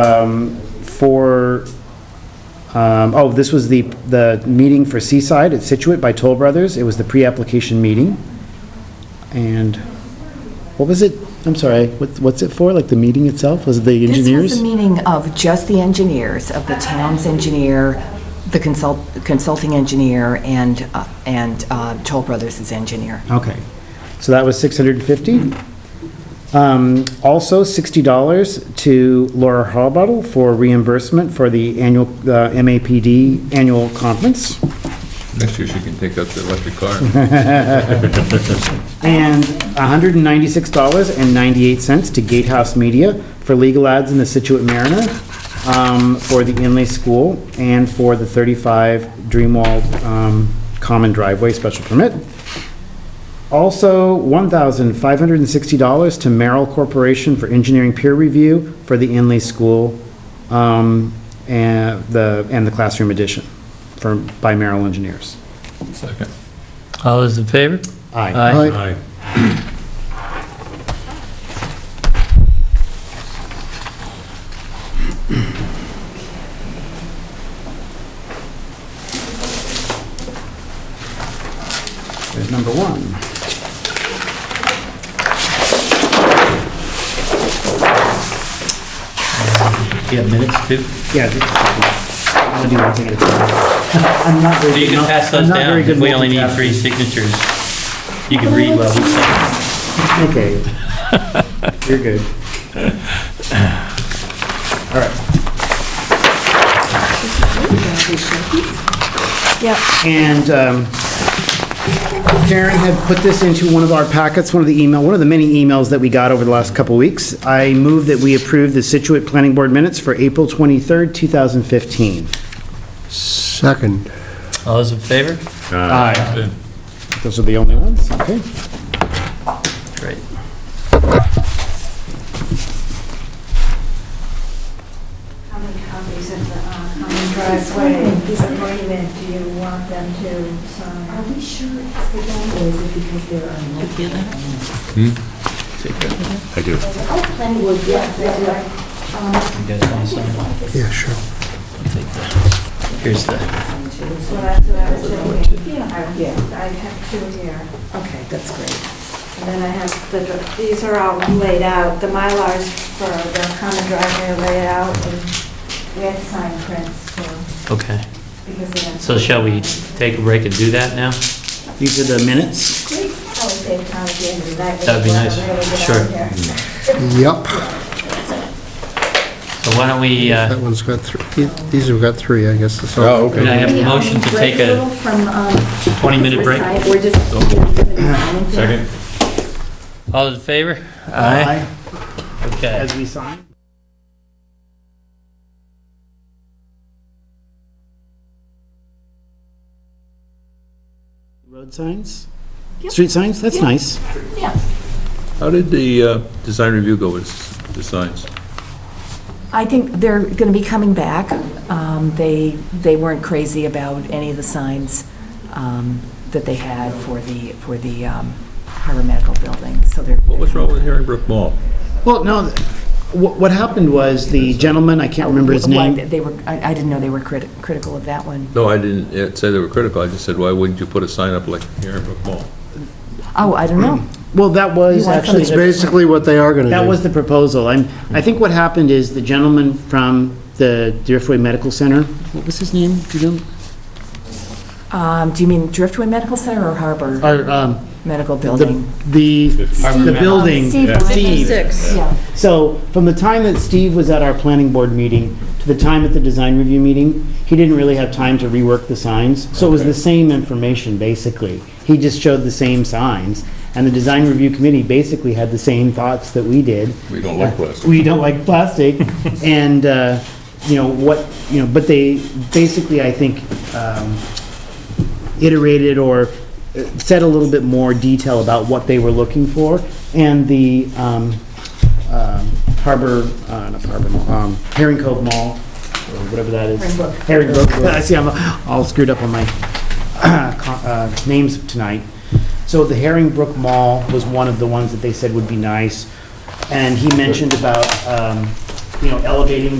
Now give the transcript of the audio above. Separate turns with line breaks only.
um, for, um, oh, this was the, the meeting for Seaside at Situate by Toll Brothers. It was the pre-application meeting. And what was it? I'm sorry, what- what's it for? Like the meeting itself? Was it the
This was
engineers?
a meeting of just the engineers, of the town's engineer, the consult consulting engineer, and, uh, and uh, Toll Brothers' engineer.
Okay. So that was 650. Um, Also, $60 to Laura Harbottle for reimbursement for the annual, uh, MAPD annual conference.
Next year, she can take up the electric car.
And $196.98 to Gatehouse Media for legal ads in the Situate Mariner, um, for the Inlay School, and for the 35 Dreamwall um, Common Driveway Special Permit. Also, $1,560 to Merrill Corporation for engineering peer review for the Inlay School um, and the, and the classroom edition from, by Merrill Engineers.
Second.
All those in favor?
Aye.
Aye.
There's number one.
You have minutes too?
Yeah. just- I'm gonna do one thing at a time. I'm not very.
So you
good
can
mul-
pass
I'm
those
not
down,
very good
if we only need
multitasking.
three signatures. You can read while we say.
Okay. You're good. All right.
Yep.
And um, Karen had put this into one of our packets, one of the email, one of the many emails that we got over the last couple weeks. I move that we approve the Situate Planning Board minutes for April 23rd, 2015.
Second.
All those in favor?
Aye. Those are the only ones, okay?
Great.
How many copies of the uh, common driveway agreement do you want them to sign? Are we sure it's the one, or is it because there are multiple?
I do.
Oh, planning board, yeah, that's right.
You guys want to sign?
Yeah, sure.
Here's the,
That's what I, that's what I was thinking. Yeah, I I have two here.
Okay, that's great.
And then I have the, dr- these are all laid out, the Mylars for the common driveway are laid out, and we had to sign prints, so,
okay.
because they have.
So shall we take a break and do that now?
These are the minutes?
Great, I would save time at the end of the night.
That'd be nice.
Really get out
Sure.
there.
Yep,
So why don't we,
that
uh,
one's got three, these have got three, I guess. that's all.
Oh, okay.
can I have a
Yeah,
motion to
break
take
little
a
From, um,
20-minute break? Oh.
We're just.
Second.
All those in favor? Okay.
As we sign? Road signs? Street signs? That's nice.
How did the uh, design review go with s- the signs?
I think they're going to be coming back. Um, They, they weren't crazy about any of the signs um, that they had for the, for the um, Harbor Medical Building, so they're.
What was wrong with Herringbrook Mall?
Well, no, th- what, what happened was the gentleman, I can't remember his
Why
name.
They were, I I didn't know they were criti- critical of that one.
No, I didn't uh, say they were critical, I just said, why wouldn't you put a sign up like Herringbrook Mall?
Oh, I don't know.
Well, that was
You want
actually,
It's basically what they are gonna do.
that was the proposal. I'm, I think what happened is the gentleman from the Driftway Medical Center, what was his name? Do you know?
Um, Do you mean Driftway Medical Center or Harbor
Or, um,
Medical
the,
Building?
the, the building.
Steve.
Steve.
Yeah.
So from the time that Steve was at our planning board meeting to the time at the design review meeting, he didn't really have time to rework the signs. So it was the same information, basically. He just showed the same signs. And the design review committee basically had the same thoughts that we did.
We don't like plastic.
We don't like plastic. And, uh, you know, what, you know, but they, basically, I think, um, iterated or uh, said a little bit more detail about what they were looking for. And the um, um, Harbor, uh, not Harbor Mall, um, Herring Cove Mall, or whatever that is. Herring Brook. I see, I'm all screwed up on my co- uh, names tonight. So the Herring Brook Mall was one of the ones that they said would be nice. And he mentioned about, um, you know, elevating